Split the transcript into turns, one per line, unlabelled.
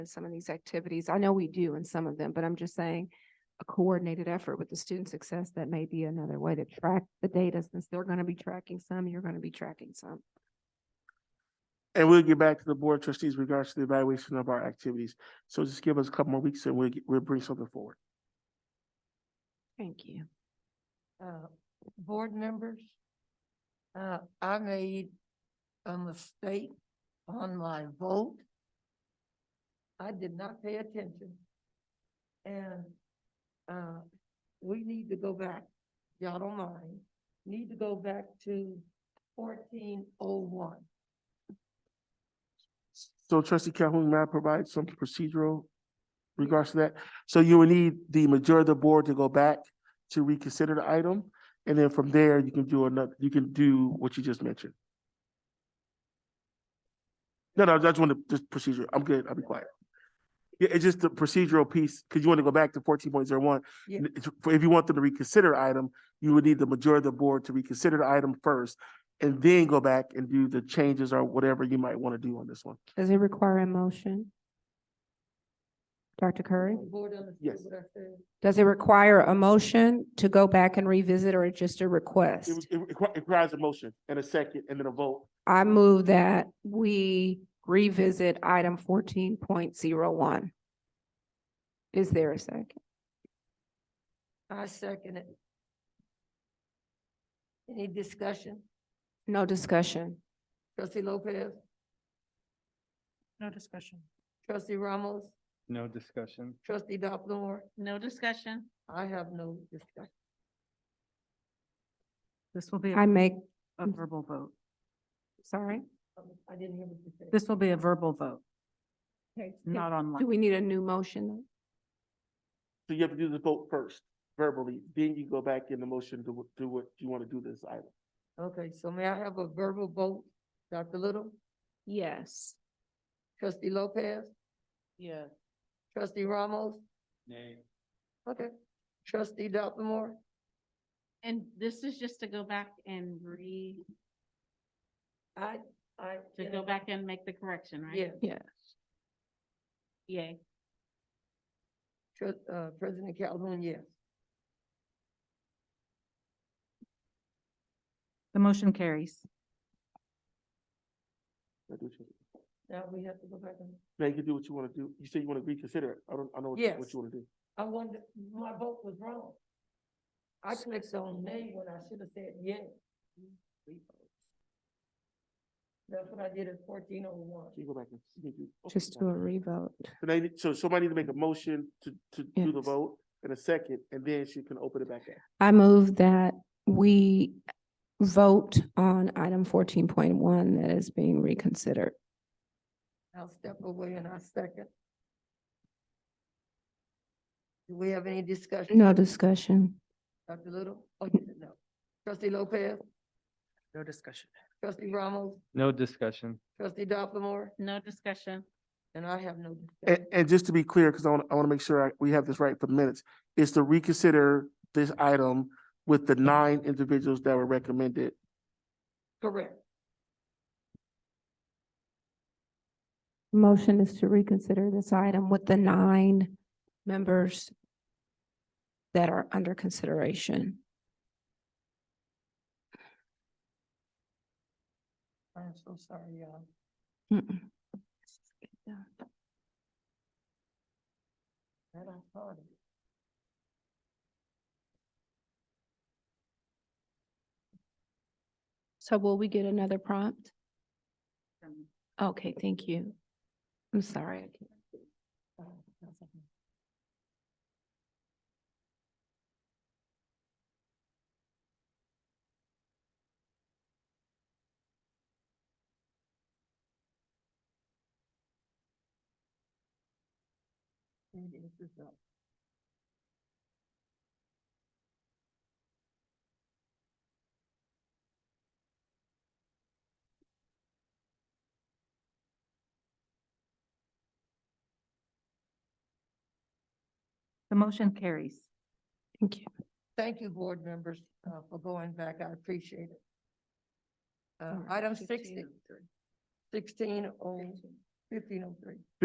in some of these activities. I know we do in some of them, but I'm just saying a coordinated effort with the student success, that may be another way to track the data since they're going to be tracking some, you're going to be tracking some.
And we'll get back to the board trustees regards to the evaluation of our activities. So just give us a couple more weeks and we'll, get- we'll bring something forward.
Thank you.
uh, board members, uh, I made a mistake on my vote. I did not pay attention. And, uh, we need to go back, y'all don't mind, need to go back to fourteen oh one.
So trustee Calhoun, may I provide some procedural regards to that? So you will need the majority of the board to go back to reconsider the item. And then from there, you can do another, you can do what you just mentioned. No, no, I just want to, just procedure. I'm good. I'll be quiet. Yeah, it's just the procedural piece, because you want to go back to fourteen point zero one.
Yeah.
If you want them to reconsider item, you would need the majority of the board to reconsider the item first and then go back and do the changes or whatever you might want to do on this one.
Does it require a motion? Dr. Curry?
Board understood
Yes.
what I said.
Does it require a motion to go back and revisit or just a
It
request?
was- it requi- it requires a motion and a second and then a vote.
I move that we revisit item fourteen point zero one. Is there a second?
I second it. Any discussion?
No discussion.
Trustee Lopez,
No discussion.
trustee Ramos,
No discussion.
trustee Dopplemore,
No discussion.
I have no discussion.
This will be
I
a
make,
a verbal vote.
sorry,
I didn't hear what you said.
This will be a verbal vote,
Okay,
not
do
online.
we need a new motion?
So you have to do the vote first verbally, then you go back in the motion to wh- do what you want to do this item.
Okay, so may I have a verbal vote? Dr. Little,
Yes.
trustee Lopez,
Yeah.
trustee Ramos,
Nay.
okay, trustee Dopplemore,
And this is just to go back and re,
I, I.
to go back and make the correction, right?
Yeah,
Yay.
Tru- uh, President Calhoun, yes.
The motion carries.
Now do what you-
Now we have to go back and,
Now you can do what you want to do. You say you want to reconsider it. I don't, I know what you- what
Yes.
you want to do.
I wonder, my vote was wrong. I clicked on nay when I should have said yes. That's what I did at fourteen oh one.
You go back and. you can do- okay,
Just do a revote.
So now you need- so somebody needs to make a motion to, to do the
Yes.
vote in a second, and then she can open it back up.
I move that we vote on item fourteen point one that is being reconsidered.
I'll step away and I second. Do we have any discussion?
No discussion.
Dr. Little? Oh, you said no. Trustee Lopez,
No discussion.
trustee Ramos,
No discussion.
trustee Dopplemore,
No discussion.
and I have no
And,
discussion.
and just to be clear, because I want, I want to make sure I- we have this right for the minutes, is to reconsider this item with the nine individuals that were recommended.
Correct.
Motion is to reconsider this item with the nine members that are under consideration.
I'm so sorry, y'all.
Mm-mm.
That I thought it.
So will we get another prompt? Okay, thank you. I'm sorry.
Maybe this is up.
The motion carries.
Thank you.
Thank you, board members, uh, for going back. I appreciate it. Uh,
All right,
item sixty. Sixteen oh, fifteen oh three.